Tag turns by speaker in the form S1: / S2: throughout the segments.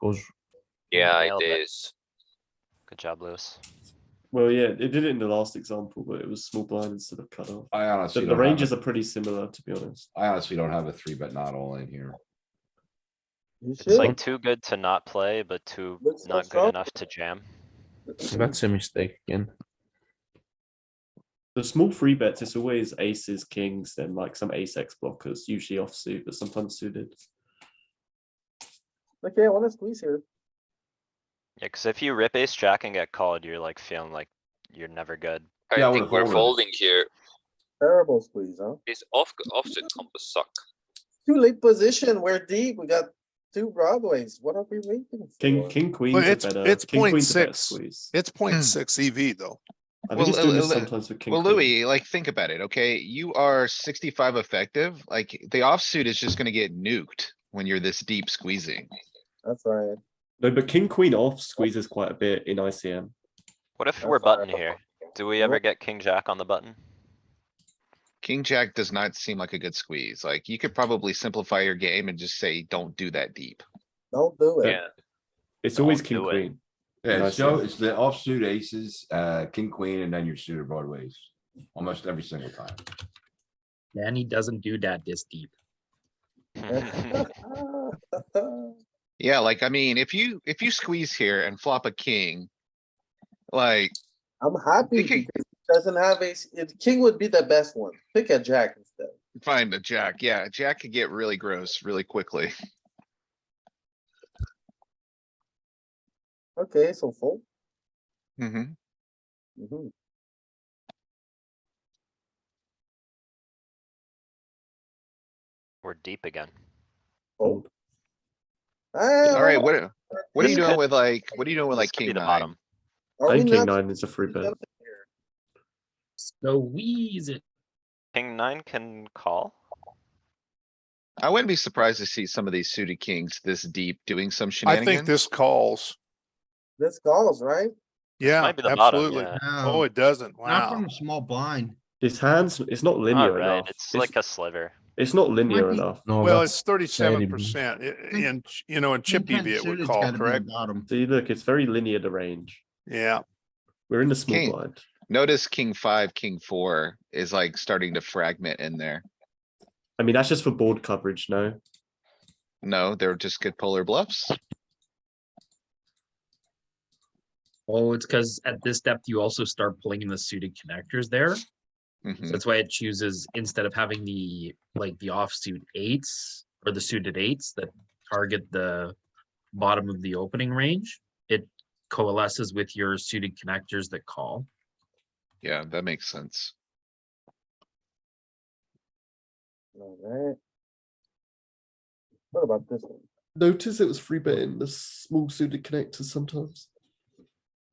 S1: goes.
S2: Yeah,
S3: Nailed
S2: it
S3: it.
S2: is.
S3: Good job, Lewis.
S4: Well, yeah, it did it in the last example, but it was small blind instead of cut off.
S5: I
S4: The,
S5: honestly.
S4: the
S5: don't have a-
S4: ranges are pretty similar, to be honest.
S5: I honestly don't have a three, but not all in here.
S6: You
S3: It's
S6: should.
S3: like too good to not play, but too
S6: Let's
S3: not
S6: stop.
S3: good enough to jam.
S1: That's a mistake again.
S4: The small free bets, it's always aces, kings, then like some ace X blockers, usually offsuit, but sometimes suited.
S6: Okay, I wanna squeeze here.
S3: Yeah, cuz if you rip ace jack and get called, you're like feeling like you're never good.
S5: Yeah, I
S2: I
S5: would've
S2: think we're
S5: folded.
S2: folding here.
S6: Terrible squeeze, huh?
S2: This off, offset combos suck.
S6: Too late position, we're deep, we got two broadways, what are we waiting for?
S4: King, king, queens are
S7: it's-
S4: better.
S7: it's
S4: king, queens are better
S7: 0.6.
S4: squeeze.
S7: It's point six EV though.
S4: I think it's
S8: Well,
S4: doing this
S8: Lu- Lu-
S4: sometimes with king.
S8: Well,
S4: queen.
S8: Louis, like, think about it, okay? You are sixty-five effective, like, the offsuit is just gonna get nuked when you're this deep squeezing.
S6: That's right,
S4: No, but king, queen off squeezes quite a bit in ICM.
S3: What if
S6: That's
S3: we're
S6: not-
S3: button here? Do we ever
S6: Nope.
S3: get king jack on the button?
S8: King jack does not seem like a good squeeze, like, you could probably simplify your game and just say, don't do that deep.
S6: don't do it.
S3: Yeah,
S4: It's
S3: Don't
S4: always king,
S3: do it.
S4: queen.
S5: Yeah,
S4: Nice,
S5: so
S4: yeah.
S5: it's the offsuit aces, uh, king, queen, and then your suited broadways, almost every single time.
S9: Danny doesn't do that this deep.
S8: Yeah, like, I mean, if you, if you squeeze here and flop a king. Like,
S6: I'm happy
S8: Thinking-
S6: because it doesn't have ace, it, king would be the best one, pick a jack instead.
S8: find a jack, yeah, a jack could get really gross really quickly.
S6: Okay, so fold.
S8: hmm
S6: Mhm.
S3: We're deep again.
S6: Fold.
S8: Alright,
S6: Ah,
S8: what, what are
S3: This
S8: you
S3: could-
S8: doing with like, what are you doing with
S3: This
S8: like
S3: could be
S8: king
S3: the
S8: nine?
S3: bottom.
S6: are
S4: I
S6: we
S4: think king
S6: not
S4: nine is a free bet.
S6: jumping here?
S9: Squeeze it.
S3: King nine can call?
S8: I wouldn't be surprised to see some of these suited kings this deep doing some
S7: I think
S8: shenanigans.
S7: this calls.
S6: This calls, right?
S7: Yeah,
S3: Might be the bottom,
S7: absolutely.
S3: yeah.
S7: Oh, it doesn't. Wow.
S9: small blind.
S4: This hand's, it's not linear
S3: Alright,
S4: enough.
S3: it's
S4: It's,
S3: like a sliver.
S4: it's not linear
S9: be-
S4: enough.
S3: Oh,
S1: No,
S7: Well,
S1: that's-
S7: it's thirty-seven percent and, you know, in chip EV it would call, correct?
S9: Bottom.
S4: See, look, it's very linear, the range.
S7: Yeah,
S4: We're in the small
S8: King.
S4: blind.
S8: Notice king five, king four is like starting to fragment in there.
S4: I mean, that's just for board coverage, no?
S8: No, they're just good polar bluffs.
S9: Oh, it's because at this depth, you also start pulling in the suited connectors there. So
S7: Mm-hmm.
S8: Mhm.
S9: That's why it chooses, instead of having the, like, the offsuit eights or the suited eights that target the bottom of the opening range, it coalesces with your suited connectors that call.
S8: Yeah, that makes sense.
S6: Alright. What about this one?
S4: Notice it was free bet in the small suited connectors sometimes.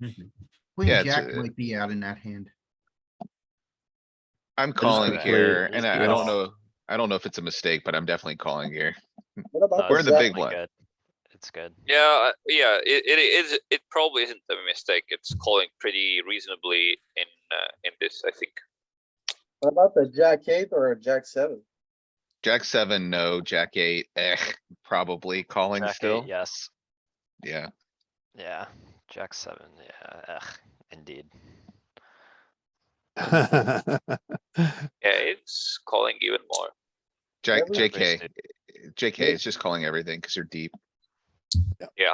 S8: Queen jack might be out in that hand. I'm calling
S4: gonna play
S8: here
S4: it.
S8: and I, I don't know, I don't know if it's a mistake, but I'm definitely calling here.
S6: What
S3: No,
S6: about?
S8: We're
S3: it's
S8: the big
S3: Uh, definitely
S8: one.
S3: good. It's good.
S2: Yeah, I- yeah, it, it is, it probably isn't a mistake. It's calling pretty reasonably in, uh, in this, I think.
S6: What about the jack eight or a jack seven?
S8: Jack seven, no, jack eight, eh, probably calling
S3: Jack eight,
S8: still.
S3: Yes,
S8: Yeah.
S3: yeah, jack seven, yeah, ugh, indeed.
S2: Yeah, it's calling even more.
S8: Jack,
S6: Every-
S3: Every
S8: JK,
S3: suit.
S8: JK is just calling everything because you're deep.
S7: Yeah.
S2: Yeah.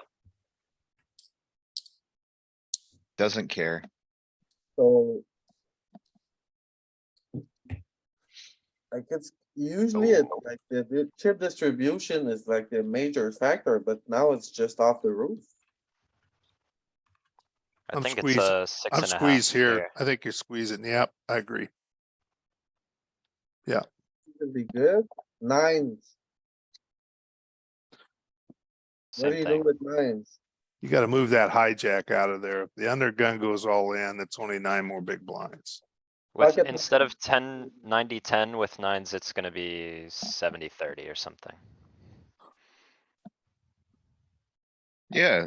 S8: Doesn't care.
S6: So. Like it's usually it's
S8: Oh.
S6: like the, the chip distribution is like the major factor, but now it's just off the roof.
S3: I
S7: I'm
S3: think it's
S7: squeezed-
S3: a six
S7: I'm
S3: and a half.
S7: squeezed here. I think you're squeezing. Yep, I agree.
S6: It'd be good. Nines, what do
S3: Same
S6: you do
S3: thing.
S6: with nines?
S7: You gotta move that hijack out of there. If The undergun goes all in, it's only nine more big blinds.
S3: With,
S6: pocket-
S3: instead of ten, ninety, ten with nines, it's gonna be seventy, thirty or something.
S8: Yeah.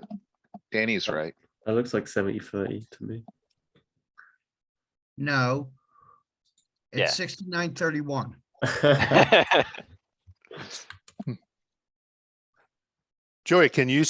S8: Danny's right.
S4: That looks like 70 30 to me.
S10: No.
S3: Yeah.
S10: It's sixty-nine thirty-one.
S3: Yeah.
S7: Joey, can you